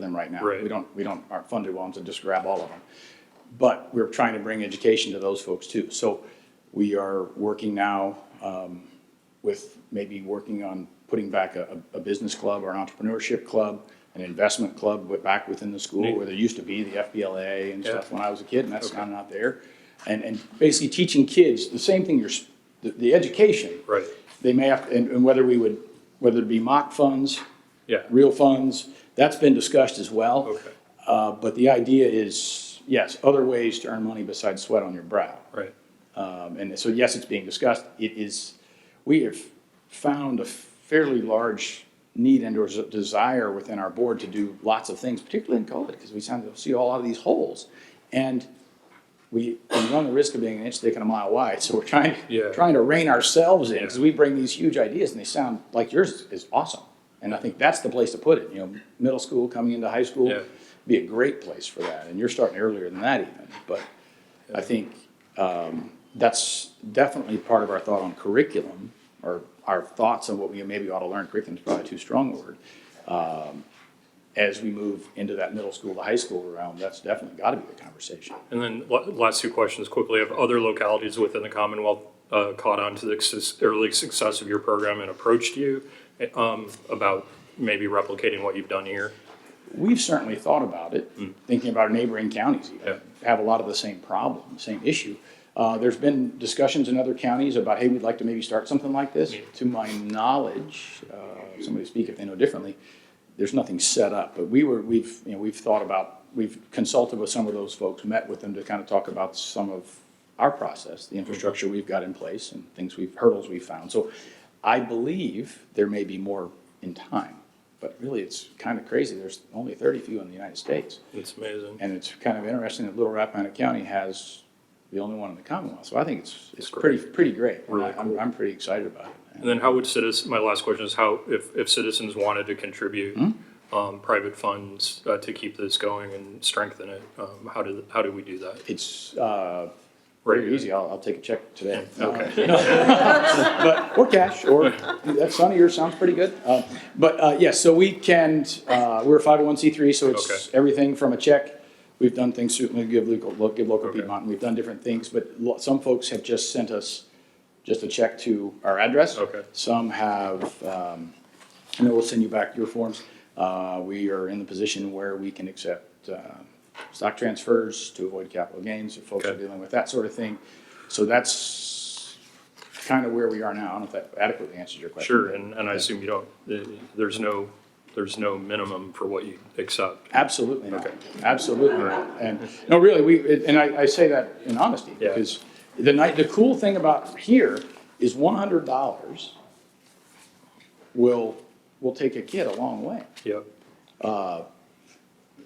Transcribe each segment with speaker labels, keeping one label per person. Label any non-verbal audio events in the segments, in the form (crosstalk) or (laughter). Speaker 1: them right now.
Speaker 2: Right.
Speaker 1: We don't, we don't, aren't funded ones and just grab all of them. But we're trying to bring education to those folks too. So we are working now um, with maybe working on putting back a, a a business club or an entrepreneurship club, an investment club, but back within the school where there used to be the FBLA and stuff
Speaker 2: Yeah.
Speaker 1: when I was a kid, and that's kind of not there. And, and basically teaching kids the same thing you're, s- the, the education.
Speaker 2: Right.
Speaker 1: They may have, and, and whether we would, whether it be mock funds,
Speaker 2: Yeah.
Speaker 1: real funds, that's been discussed as well.
Speaker 2: Okay.
Speaker 1: Uh, but the idea is, yes, other ways to earn money besides sweat on your brow.
Speaker 2: Right.
Speaker 1: Um, and so, yes, it's being discussed. It is, we have found a fairly large need and or s- desire within our board to do lots of things, particularly in COVID, because we tend to see a lot of these holes. And we, we run the risk of being an inch thick and a mile wide, so we're trying,
Speaker 2: Yeah.
Speaker 1: trying to rein ourselves in,
Speaker 2: Yeah.
Speaker 1: because we bring these huge ideas and they sound like yours is awesome. And I think that's the place to put it, you know, middle school coming into high school,
Speaker 2: Yeah.
Speaker 1: be a great place for that, and you're starting earlier than that even, but I think, um, that's definitely part of our thought on curriculum, or our thoughts on what we maybe ought to learn, curriculum is probably too strong a word. Um, As we move into that middle school to high school realm, that's definitely gotta be the conversation.
Speaker 2: And then la- last two questions quickly. Have other localities within the Commonwealth uh, caught on to the success- early success of your program and approached you um, about maybe replicating what you've done here?
Speaker 1: We've certainly thought about it, thinking about our neighboring counties
Speaker 2: Mm. Yeah.
Speaker 1: even, have a lot of the same problem, same issue. Uh, there's been discussions in other counties about, hey, we'd like to maybe start something like this. To my knowledge, uh, somebody speak if they know differently, there's nothing set up, but we were, we've, you know, we've thought about, we've consulted with some of those folks, met with them to kind of talk about some of our process, the infrastructure we've got in place and things we've, hurdles we've found. So I believe there may be more in time, but really it's kind of crazy. There's only thirty few in the United States.
Speaker 2: It's amazing.
Speaker 1: And it's kind of interesting that Little Rappahannock County has the only one in the Commonwealth. So I think it's, it's pretty, pretty great. And I- I'm, I'm pretty excited about it.
Speaker 2: And then how would citizens, my last question is how, if, if citizens wanted to contribute um, private funds uh, to keep this going and strengthen it, um, how do, how do we do that?
Speaker 1: It's, uh,
Speaker 2: Right.
Speaker 1: very easy. I'll, I'll take a check today.
Speaker 2: (laughs)
Speaker 1: Uh,
Speaker 2: Okay.
Speaker 1: But, or cash, or that son of yours sounds pretty good. Uh, But, uh, yes, so we can, uh, we're a five oh one C three, so it's
Speaker 2: Okay.
Speaker 1: everything from a check. We've done things, certainly give local, lo- give local
Speaker 2: Okay.
Speaker 1: Piedmont, and we've done different things, but lo- some folks have just sent us just a check to our address.
Speaker 2: Okay.
Speaker 1: Some have, um, I know we'll send you back your forms. Uh, we are in the position where we can accept, uh, stock transfers to avoid capital gains if folks are
Speaker 2: Okay.
Speaker 1: dealing with that sort of thing. So that's kind of where we are now. I don't know if that adequately answers your question.
Speaker 2: Sure,
Speaker 1: but-
Speaker 2: and, and I assume you don't, eh, there's no, there's no minimum for what you accept.
Speaker 1: Absolutely not.
Speaker 2: Okay.
Speaker 1: Absolutely not. And, no, really, we, and I, I say that in honesty,
Speaker 2: Yeah.
Speaker 1: because the night, the cool thing about here is one hundred dollars will, will take a kid a long way.
Speaker 2: Yep.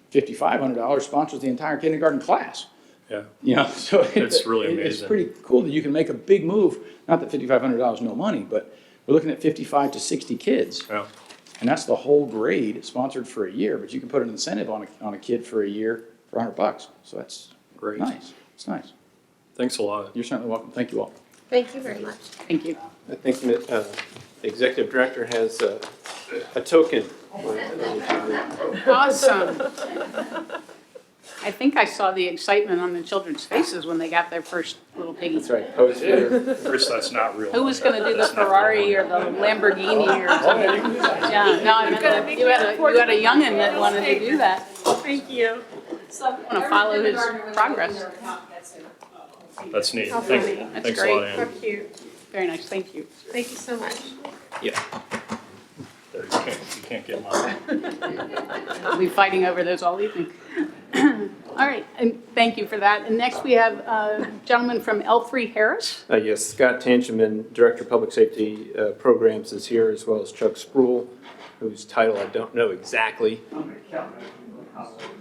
Speaker 1: Fifty-five hundred dollars sponsors the entire kindergarten class.
Speaker 2: Yeah,
Speaker 1: You know, so it-
Speaker 2: It's really
Speaker 1: it- It's
Speaker 2: amazing.
Speaker 1: pretty cool that you can make a big move. Not that fifty-five hundred dollars is no money, but we're looking at fifty-five to sixty kids.
Speaker 2: yeah.
Speaker 1: And that's the whole grade sponsored for a year, but you can put an incentive on a, on a kid for a year for hundred bucks. So that's
Speaker 2: Great.
Speaker 1: nice. It's nice.
Speaker 2: Thanks a lot.
Speaker 1: You're certainly welcome. Thank you all.
Speaker 3: Thank you very much.
Speaker 4: Thank you.
Speaker 5: I think that, uh, the executive director has uh, a token.
Speaker 4: Awesome. I think I saw the excitement on the children's faces when they got their first little piggy.
Speaker 5: That's right, poster.
Speaker 2: Chris, that's not real.
Speaker 4: Who was going to do the Ferrari or the Lamborghini or something? Yeah, no, I meant, that you had a, you had a youngin' that wanted to do that.
Speaker 6: Thank you.
Speaker 4: I want to follow his progress.
Speaker 2: That's neat.
Speaker 6: How
Speaker 2: Thanks,
Speaker 6: funny.
Speaker 4: That's
Speaker 2: thanks a lot,
Speaker 4: great.
Speaker 6: How
Speaker 2: Ann.
Speaker 6: cute.
Speaker 4: Very nice, thank you.
Speaker 6: Thank you so much.
Speaker 5: Yeah.
Speaker 2: There, You can't, you can't get mine.
Speaker 4: We'll be fighting over those all evening. (clears throat) All right, and thank you for that. And next we have a gentleman from Elfrey Harris.
Speaker 5: Uh, Yes, Scott Tangeman, Director of Public Safety uh, Programs is here, as well as Chuck Sproul, whose title I don't know exactly.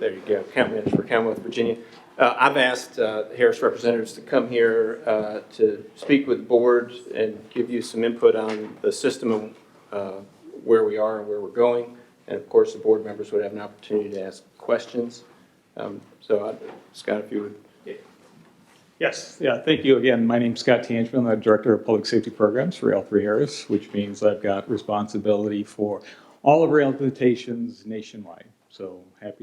Speaker 5: There you go, County Manager for Commonwealth, Virginia. Uh, I've asked uh, Harris representatives to come here uh, to speak with the board and give you some input on the system and uh, where we are and where we're going. And of course, the board members would have an opportunity to ask questions. Um, So I- Scott, if you would
Speaker 7: Yes, yeah, thank you again. My name's Scott Tangeman, I'm the Director of Public Safety Programs for L3 Harris, which means I've got responsibility for all of our implementations nationwide. So happy